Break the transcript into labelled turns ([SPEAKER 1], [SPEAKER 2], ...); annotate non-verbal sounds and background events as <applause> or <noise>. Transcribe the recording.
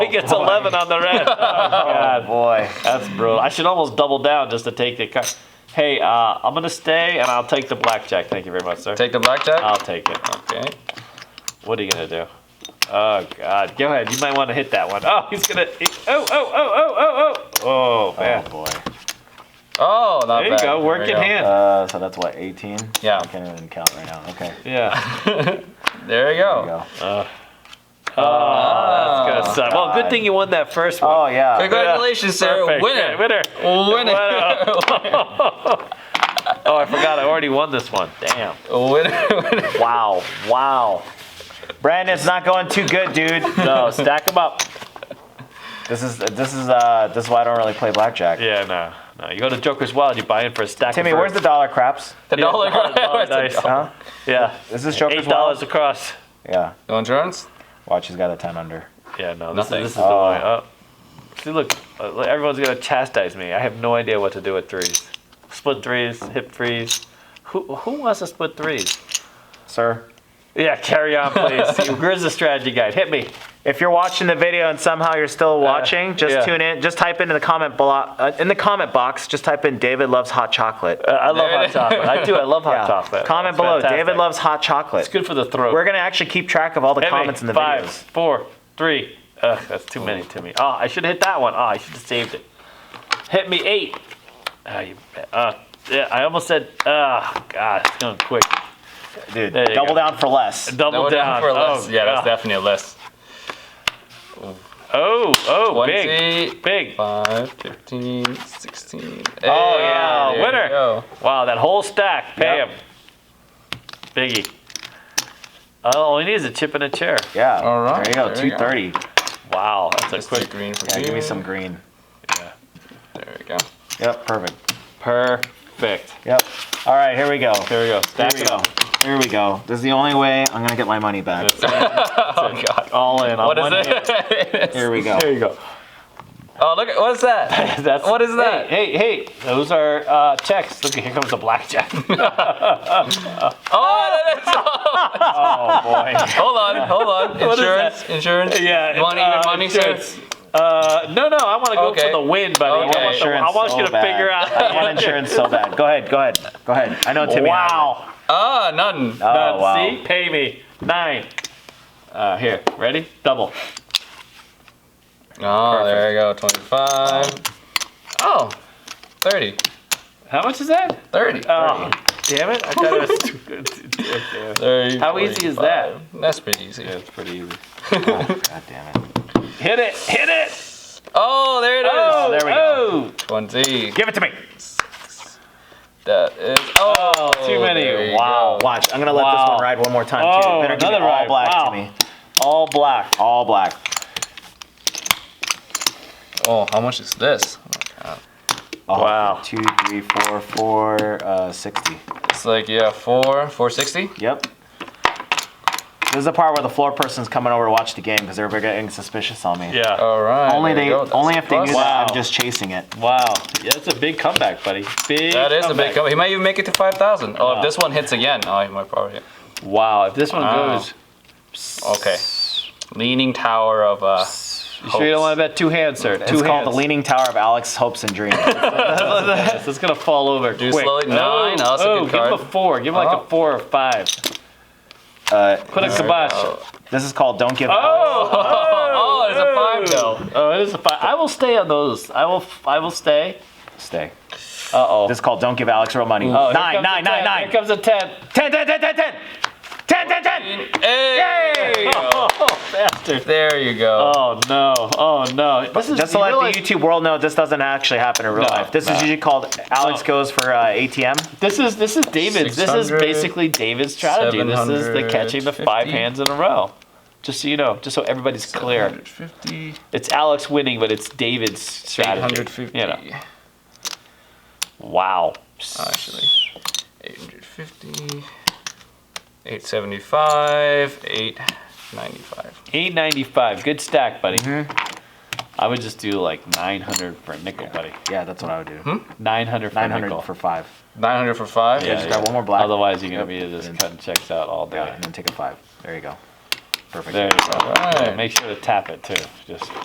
[SPEAKER 1] gets 11 on the red. Oh, God.
[SPEAKER 2] boy.
[SPEAKER 1] That's brutal. I should almost double down just to take the cut. Hey, uh, I'm gonna stay and I'll take the blackjack. Thank you very much, sir.
[SPEAKER 2] Take the blackjack.
[SPEAKER 1] I'll take it.
[SPEAKER 2] okay.
[SPEAKER 1] What are you gonna do? Oh God, go ahead. You might want to hit that one. Oh, he's gonna. he- oh, oh, oh, oh, oh, oh. Oh man.
[SPEAKER 3] Oh boy.
[SPEAKER 2] Oh, not
[SPEAKER 1] there you
[SPEAKER 2] bad.
[SPEAKER 1] go. Work
[SPEAKER 2] There
[SPEAKER 1] in
[SPEAKER 2] we
[SPEAKER 1] hand.
[SPEAKER 3] Uh, so that's what 18.
[SPEAKER 2] Yeah.
[SPEAKER 3] I can't even count right now. Okay.
[SPEAKER 1] <laughs> yeah.
[SPEAKER 2] There you
[SPEAKER 3] There you
[SPEAKER 2] go.
[SPEAKER 3] go.
[SPEAKER 1] Oh, that's gonna suck. Well, good thing you won that first one.
[SPEAKER 3] Oh yeah.
[SPEAKER 2] Congratulations, Sarah.
[SPEAKER 1] Perfect.
[SPEAKER 2] Winner.
[SPEAKER 1] Yeah, winner.
[SPEAKER 2] Winner.
[SPEAKER 1] <laughs> Oh, I forgot. I already won this one. Damn.
[SPEAKER 2] <laughs> Winner. Winner.
[SPEAKER 3] Wow. Wow. Brandon's not going too good,
[SPEAKER 2] <laughs>
[SPEAKER 3] dude.
[SPEAKER 1] No, Oh, stack them up.
[SPEAKER 3] This is this is uh this is why I don't really play blackjack.
[SPEAKER 1] Yeah, no, no. You go to Joker's Wild, you buy in for a stack.
[SPEAKER 3] Timmy,
[SPEAKER 1] of
[SPEAKER 3] where's the dollar craps?
[SPEAKER 2] The
[SPEAKER 1] Yeah,
[SPEAKER 2] dollar.
[SPEAKER 1] <laughs> dollar, <laughs> dollar
[SPEAKER 2] Where's the
[SPEAKER 1] dice.
[SPEAKER 2] dollar?
[SPEAKER 3] Huh?
[SPEAKER 1] Yeah,
[SPEAKER 3] Is this Joker's
[SPEAKER 1] eight dollars
[SPEAKER 3] Wild?
[SPEAKER 1] across.
[SPEAKER 3] Yeah.
[SPEAKER 2] No insurance.
[SPEAKER 3] Watch, he's got a 10 under.
[SPEAKER 1] Yeah, no, this
[SPEAKER 2] Nothing.
[SPEAKER 1] is, this is the
[SPEAKER 3] Oh.
[SPEAKER 1] way. Oh. See, look, uh, look, everyone's gonna chastise me. I have no idea what to do with threes. Split threes, hip threes. Who who wants to split threes?
[SPEAKER 3] Sir,
[SPEAKER 1] Yeah, carry on, please. <laughs> Where's the strategy guide? Hit me.
[SPEAKER 3] if you're watching the video and somehow you're still watching, just
[SPEAKER 1] yeah.
[SPEAKER 3] tune in. Just type in the comment blo- uh, in the comment box. Just type in David loves hot chocolate.
[SPEAKER 1] Uh, I love
[SPEAKER 2] There it
[SPEAKER 1] hot
[SPEAKER 2] is.
[SPEAKER 1] chocolate. I do. I love <laughs> hot
[SPEAKER 3] Yeah.
[SPEAKER 1] chocolate.
[SPEAKER 3] Comment
[SPEAKER 1] It's
[SPEAKER 3] below.
[SPEAKER 1] fantastic.
[SPEAKER 3] David loves hot chocolate.
[SPEAKER 1] It's good for the throat.
[SPEAKER 3] We're gonna actually keep track of all the
[SPEAKER 1] Hit me.
[SPEAKER 3] comments in the
[SPEAKER 1] Five,
[SPEAKER 3] videos.
[SPEAKER 1] four, three. Ugh, that's too many to me. Oh, I should have hit that one. Oh, I should have saved it. Hit me eight. Ah, you, uh, yeah, I almost said. Ah, God, it's going quick.
[SPEAKER 3] Dude,
[SPEAKER 1] There you go.
[SPEAKER 3] double down for less.
[SPEAKER 1] Double
[SPEAKER 2] No
[SPEAKER 1] down.
[SPEAKER 2] for a list.
[SPEAKER 1] Oh,
[SPEAKER 2] yeah, that's
[SPEAKER 1] God.
[SPEAKER 2] definitely a list.
[SPEAKER 1] Oh, oh,
[SPEAKER 2] 20,
[SPEAKER 1] big, big.
[SPEAKER 2] 5, 15, 16.
[SPEAKER 1] Oh, yeah,
[SPEAKER 2] there
[SPEAKER 1] winner.
[SPEAKER 2] you go.
[SPEAKER 1] Wow, that whole stack. Pay
[SPEAKER 3] Yep.
[SPEAKER 1] him. Biggie. Oh, all he needs is a chip and a chair.
[SPEAKER 3] Yeah.
[SPEAKER 2] All right,
[SPEAKER 3] There you go.
[SPEAKER 2] there you go.
[SPEAKER 3] 230.
[SPEAKER 1] Wow, that's
[SPEAKER 2] Just
[SPEAKER 1] a
[SPEAKER 2] quick
[SPEAKER 1] quick.
[SPEAKER 2] green for
[SPEAKER 3] Yeah,
[SPEAKER 2] you.
[SPEAKER 3] give me some green.
[SPEAKER 2] There we go.
[SPEAKER 3] Yep. Perfect.
[SPEAKER 1] Perfect.
[SPEAKER 3] Yep. All right. Here we go.
[SPEAKER 1] There we go.
[SPEAKER 3] Here
[SPEAKER 1] Stack
[SPEAKER 3] we
[SPEAKER 1] it
[SPEAKER 3] go.
[SPEAKER 1] up.
[SPEAKER 3] Here we go. This is the only way I'm gonna get my money back.
[SPEAKER 2] Oh God.
[SPEAKER 1] All in. on
[SPEAKER 2] What is
[SPEAKER 1] one hand.
[SPEAKER 2] it? <laughs>
[SPEAKER 3] Here we go.
[SPEAKER 1] There you go.
[SPEAKER 2] oh, look. at- What is
[SPEAKER 3] <laughs>
[SPEAKER 2] that?
[SPEAKER 1] <laughs> That's
[SPEAKER 2] What is that?
[SPEAKER 1] Hey, hey, hey. those are uh, checks. Look, here comes the
[SPEAKER 3] <laughs>
[SPEAKER 1] blackjack.
[SPEAKER 2] Oh, that is, <laughs>
[SPEAKER 1] oh boy.
[SPEAKER 2] hold on, hold
[SPEAKER 3] <laughs>
[SPEAKER 2] on.
[SPEAKER 1] What is that?
[SPEAKER 2] Insurance, insurance.
[SPEAKER 1] <laughs> Yeah.
[SPEAKER 2] You want
[SPEAKER 1] it's,
[SPEAKER 2] even
[SPEAKER 1] uh,
[SPEAKER 2] money,
[SPEAKER 1] insurance.
[SPEAKER 2] sir?
[SPEAKER 1] Uh, no, no. I want to go
[SPEAKER 2] Okay.
[SPEAKER 1] for the win, buddy.
[SPEAKER 2] Okay.
[SPEAKER 1] I want, the- I
[SPEAKER 3] Insurance
[SPEAKER 1] want
[SPEAKER 3] so
[SPEAKER 1] you to
[SPEAKER 3] bad.
[SPEAKER 1] figure out.
[SPEAKER 3] I want insurance so bad. Go ahead. Go ahead. Go ahead. I know Timmy. has it.
[SPEAKER 1] Wow.
[SPEAKER 2] Ah, none.
[SPEAKER 3] Oh
[SPEAKER 1] None.
[SPEAKER 3] wow.
[SPEAKER 1] See? Pay me. Nine. Uh, here. Ready? Double.
[SPEAKER 2] Oh, there we go. 25. Oh, 30.
[SPEAKER 1] How much is that?
[SPEAKER 2] 30.
[SPEAKER 1] Oh, damn it. I thought it was too good. <laughs> Yeah,
[SPEAKER 2] 30
[SPEAKER 1] How easy is that?
[SPEAKER 2] 45. That's pretty easy.
[SPEAKER 1] It's pretty <laughs> easy.
[SPEAKER 3] God damn Oh, it.
[SPEAKER 1] Hit it. Hit it.
[SPEAKER 2] Oh, there it is.
[SPEAKER 1] Oh,
[SPEAKER 3] there we
[SPEAKER 1] go.
[SPEAKER 2] 20.
[SPEAKER 3] Give it to me.
[SPEAKER 2] That is. Oh,
[SPEAKER 1] too many.
[SPEAKER 2] there you
[SPEAKER 3] Wow.
[SPEAKER 2] go.
[SPEAKER 3] Watch. I'm gonna let this
[SPEAKER 1] Wow.
[SPEAKER 3] one ride one more time too.
[SPEAKER 1] Oh,
[SPEAKER 3] Better give me
[SPEAKER 1] another
[SPEAKER 3] all
[SPEAKER 1] ride.
[SPEAKER 3] black
[SPEAKER 1] Wow.
[SPEAKER 3] to me.
[SPEAKER 1] All black.
[SPEAKER 3] All black.
[SPEAKER 2] Oh, how much is this?
[SPEAKER 3] Oh,
[SPEAKER 1] Wow.
[SPEAKER 3] Two, three, four, four, uh, 60.
[SPEAKER 2] It's like yeah, four, four sixty.
[SPEAKER 3] Yep. This is the part where the floor person's coming over to watch the game because they're getting suspicious on me.
[SPEAKER 1] Yeah.
[SPEAKER 2] All right.
[SPEAKER 3] Only
[SPEAKER 2] there
[SPEAKER 3] they,
[SPEAKER 2] you go. That's
[SPEAKER 3] only if they
[SPEAKER 2] plus.
[SPEAKER 3] knew that
[SPEAKER 1] Wow.
[SPEAKER 3] I'm just chasing it.
[SPEAKER 1] Wow, yeah, that's a big comeback, buddy. Big.
[SPEAKER 2] That is a big
[SPEAKER 1] comeback.
[SPEAKER 2] comeback. He might even make it to five thousand. Oh,
[SPEAKER 1] Wow.
[SPEAKER 2] if this one hits again, oh, he might probably. Hit.
[SPEAKER 1] Wow, if this one
[SPEAKER 2] Wow.
[SPEAKER 1] goes,
[SPEAKER 2] Okay. Leaning tower of uh.
[SPEAKER 1] you sure you don't want to bet two hands, sir? Two
[SPEAKER 3] It's called
[SPEAKER 1] hands.
[SPEAKER 3] the Leaning Tower of Alex Hopes
[SPEAKER 1] <laughs>
[SPEAKER 3] and Dreams. All
[SPEAKER 1] Yes, it's gonna fall over.
[SPEAKER 2] Do
[SPEAKER 1] quick.
[SPEAKER 2] slowly- nine, oh, that's a good
[SPEAKER 1] give him
[SPEAKER 2] card.
[SPEAKER 1] a four. Give him like
[SPEAKER 2] Oh.
[SPEAKER 1] a four or five.
[SPEAKER 3] right.
[SPEAKER 1] Put a
[SPEAKER 2] There we
[SPEAKER 1] kibosh.
[SPEAKER 2] go.
[SPEAKER 1] Oh,
[SPEAKER 3] Uh, This is called Don't Give Up.
[SPEAKER 2] Oh, there's a five though.
[SPEAKER 1] <laughs> Oh, it is a five. I will stay on those. I will. I will stay.
[SPEAKER 3] Stay.
[SPEAKER 1] Uh oh.
[SPEAKER 3] This is called Don't Give Alex Real Money.
[SPEAKER 1] Oh, here
[SPEAKER 3] Nine,
[SPEAKER 1] comes
[SPEAKER 3] nine,
[SPEAKER 1] a
[SPEAKER 3] nine,
[SPEAKER 1] ten.
[SPEAKER 3] nine.
[SPEAKER 1] Here comes a ten.
[SPEAKER 3] Ten, ten, ten, ten, ten. Ten, ten, ten.
[SPEAKER 2] Hey! There you go.
[SPEAKER 1] Oh, bastard.
[SPEAKER 2] There you go.
[SPEAKER 1] Oh no. Oh no. This is
[SPEAKER 3] Just to
[SPEAKER 1] you
[SPEAKER 3] let
[SPEAKER 1] realize-
[SPEAKER 3] the YouTube world know, this doesn't actually happen in real
[SPEAKER 1] No,
[SPEAKER 3] life. This
[SPEAKER 1] no. Oh.
[SPEAKER 3] is usually called Alex
[SPEAKER 1] No.
[SPEAKER 3] Goes for uh, ATM.
[SPEAKER 1] This is this is David's. This is
[SPEAKER 2] 600,
[SPEAKER 1] basically David's strategy. This is the catching the five
[SPEAKER 2] 750.
[SPEAKER 1] hands in a row. Just so you know, just so everybody's clear,
[SPEAKER 2] 150,
[SPEAKER 1] it's Alex winning, but it's David's strategy.
[SPEAKER 2] 850.
[SPEAKER 1] You know. Wow.
[SPEAKER 3] Oh,
[SPEAKER 2] Actually, 850, 875, 895.
[SPEAKER 1] 895. Good stack, buddy.
[SPEAKER 3] Mm-hmm.
[SPEAKER 1] I would just do like 900 for a nickel, buddy.
[SPEAKER 3] Yeah, that's what I would do.
[SPEAKER 1] Hmm? 900 for a
[SPEAKER 3] 900
[SPEAKER 1] nickel.
[SPEAKER 3] for five.
[SPEAKER 2] 900 for five.
[SPEAKER 1] Yeah,
[SPEAKER 3] just
[SPEAKER 1] yeah.
[SPEAKER 3] grab one more black.
[SPEAKER 1] Otherwise, you're gonna
[SPEAKER 3] Yep.
[SPEAKER 1] be just cutting checks out all day.
[SPEAKER 3] Yeah, and then take a five. There you go. Perfect.
[SPEAKER 1] There you go.
[SPEAKER 2] All right.
[SPEAKER 1] Make sure to tap it too. Just